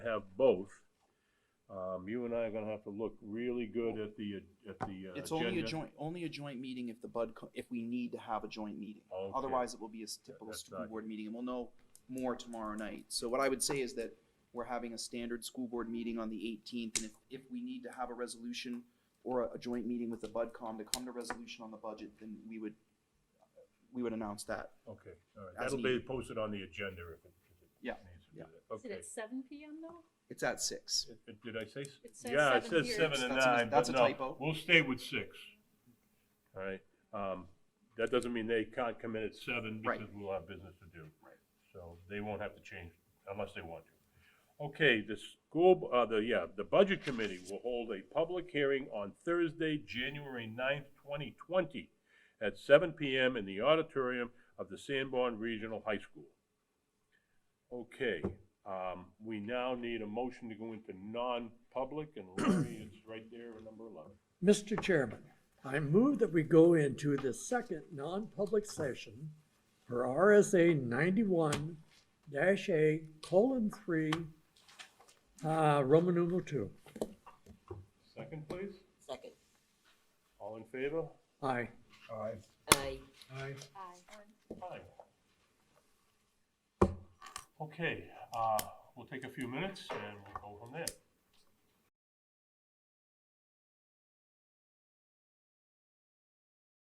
have both, um, you and I are gonna have to look really good at the, at the uh, agenda. It's only a joint, only a joint meeting if the bud, co- if we need to have a joint meeting. Okay. Otherwise, it will be a s- typical that's school not- board meeting, and we'll know more tomorrow night. So what I would say is that we're having a standard school board meeting on the eighteenth, and if, if we need to have a resolution or a, a joint meeting with the budcom to come to resolution on the budget, then we would, we would announce that. Okay, all right, As that'll be needed. posted on the agenda if it. if it Yeah, needs to be yeah. there. Is it Okay, at seven PM though? It's at six. It- it- did I say? s- It says Yeah, it seven says here. seven and That's a mis- nine, but that's a no, typo. we'll stay with six. All right, um, that doesn't mean they can't come in at seven Right. because we'll have business to do. Right. So they won't have to change unless they want to. Okay, the school, uh, the, yeah, the Budget Committee will hold a public hearing on Thursday, January 9th, twenty twenty, at seven PM in the auditorium of the Sanborn Regional High School. Okay, um, we now need a motion to go into non-public, and Larry, it's right there, number eleven. Mr. Chairman, I move that we go into the second non-public session for RSA ninety-one dash A colon three, uh, Roman numeral two. Second, please? Second. All in favor? Aye. Aye. Aye. Aye. Aye. Aye. Okay, uh, we'll take a few minutes and we'll go from there.